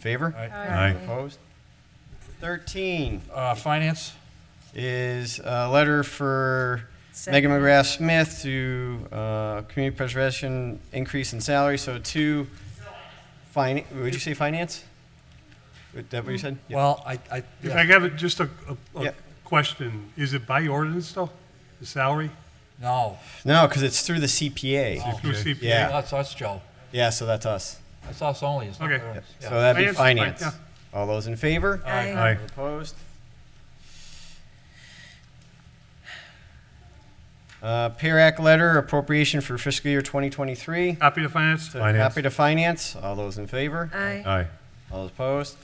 Favor? Aye. Opposed? 13 Uh, Finance, is a letter for Megan McGrath Smith to uh, Community Preservation increase in salary, so to, fin- would you say finance? Is that what you said? Yeah. well, I, I, If I yeah. have just a, a, Yeah. a question, is it by ordinance though, the salary? no, No, because it's through the CPA. Oh. Through Okay. CPA? Yeah. that's us, Joe. Yeah, so that's us. That's us only, it's not Okay. theirs. So Yeah. that'd be Finance, finance. yeah. All those in favor? Aye. Aye. Opposed? Uh, PAIR Act letter appropriation for fiscal year 2023. Copy to finance? So Finance. Happy to finance. All those in favor? Aye. Aye. All those opposed?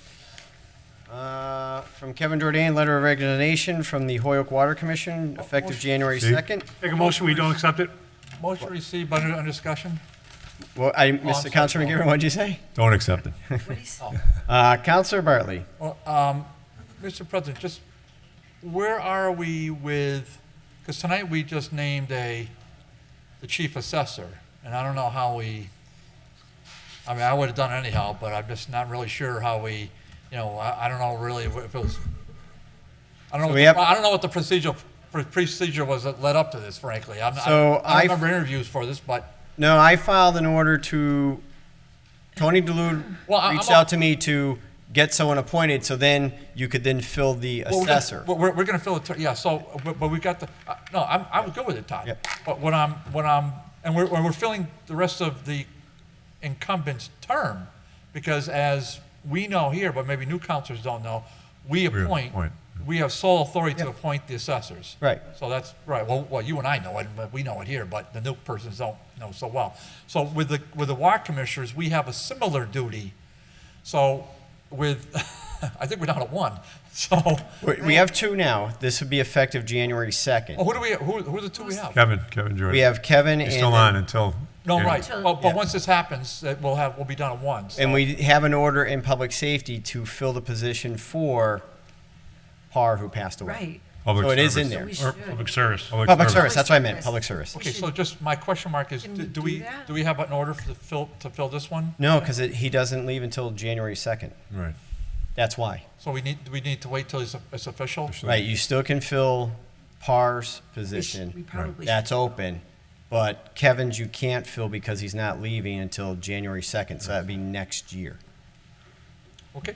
Uh, From Kevin Jordan, letter of resignation from the Hoyok Water Commission, effective January See? 2nd. Make a motion, we don't accept it? Motion received under, under discussion? Well, I, Oh, I'm Mr. sorry, Councilman Paul. Gibbon, what'd you say? Don't accept it. Uh, Counselor Bartley, Well, um, Mr. President, just, where are we with, because tonight we just named a, the chief assessor, and I don't know how we, I mean, I would have done it anyhow, but I'm just not really sure how we, you know, I, I don't know really if it was, I don't know, So what we the- have- I don't know what the procedural, pr- procedure was that led up to this, frankly. I'm, I So don't- I I've- don't remember interviews for this, but, no, I filed an order to, Tony DeLude Well, I- reached I'm- out to me to get someone appointed, so then you could then fill the Well, we're gonna- assessor. We're, we're, we're gonna fill it, yeah, so, but, but we got the, uh, no, I'm, I'm good with it, Todd. Yep. But when I'm, when I'm, and we're, we're filling the rest of the incumbent's term, because as we know here, but maybe new counselors don't know, we appoint, appoint. we have sole authority to appoint the assessors. Right. So that's, right, well, well, you and I know it, but we know it here, but the new persons don't know so well. So with the, with the WAC commissioners, we have a similar duty. So with, I think we're down to one, so. We we have two now. This would be effective January 2nd. Well, who do we, who, who are the two we have? Kevin, Kevin Jordan. We have Kevin and. He's still on until. No, yeah. right, but, but Yeah. once this happens, that we'll have, we'll be down at one, so, And we have an order in public safety to fill the position for Parr, who passed away. Right. Public So it is in service. there. We Or should. public service? Public service, that's what I meant, Yes. public service. okay, so just, my question mark is, Can do we do do we, that? do we have an order for the fill, to fill this one? No, because he doesn't leave until January 2nd. Right. That's why. So we need, do we need to wait till it's, it's official? Right, you still can fill Parr's We should- we position. probably That's should. open. But Kevin's you can't fill because he's not leaving until January 2nd, so that'd be next year. Okay,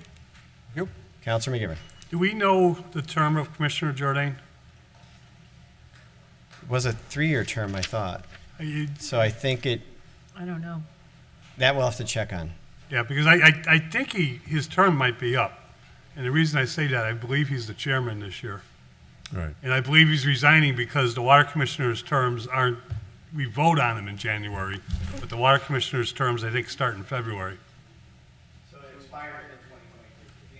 you, Counselor McGivern, Do we know the term of Commissioner Jordan? it was a three-year term, I thought. Are you- So I think it, I don't know. that we'll have to check on. Yeah, because I, I, I think he, his term might be up. And the reason I say that, I believe he's the chairman this year. Right. And I believe he's resigning because the water commissioner's terms aren't, we vote on them in January, but the water commissioner's terms, I think, start in February. So it expired in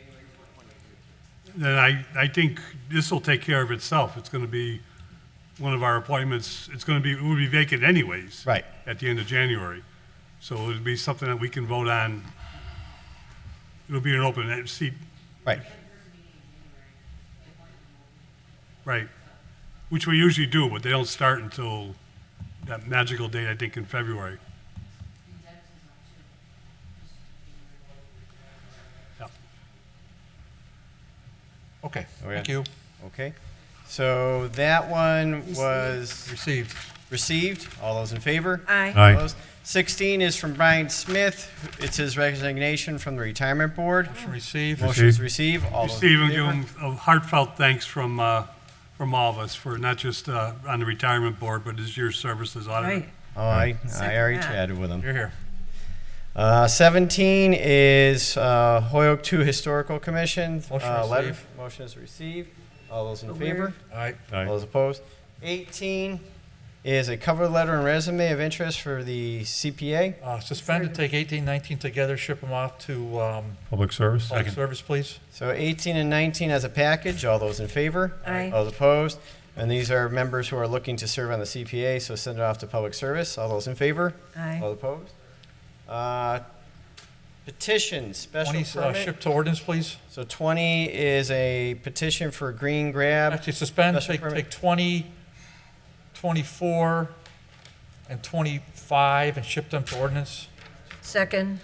2023, January 2023. Then I, I think this will take care of itself. It's going to be one of our appointments, it's going to be, it would be vacant anyways. Right. At the end of January. So it'd be something that we can vote on. It'll be an open eh, seat, Right. right, which we usually do, but they don't start until that magical date, I think, in February. okay, yeah. thank you, Okay. So that one was received. received. All those in favor? Aye. Aye. Opposed? 16 is from Brian Smith. It's his resignation from the Retirement Board. Motion received. Motion is received. All those Steve, in and give favor? him a heartfelt thanks from, uh, from all of us for not just uh, on the retirement board, but his year's service as auditor. Right. Oh, I, I Second already that. chatted with him. You're here. Uh, 17 is uh, Hoyoke 2 Historical Commission. Motion Uh, letter- received. Motion is received. All those in favor? All right, All Aye. those opposed? 18 is a cover letter and resume of interest for the CPA. uh, suspend and take eighteen, nineteen together, ship them off to, um, Public service. public service, please. So 18 and 19 as a package, all those in favor? Aye. All those opposed? And these are members who are looking to serve on the CPA, so send it off to public service, all those in favor? Aye. Oh. All opposed? Uh, Petitions, special Twenty, uh, permit. ship to ordinance, please. So 20 is a petition for green grab. Actually, suspend, Special take, permit. take 20, 24, and 25, and ship them to ordinance. Second.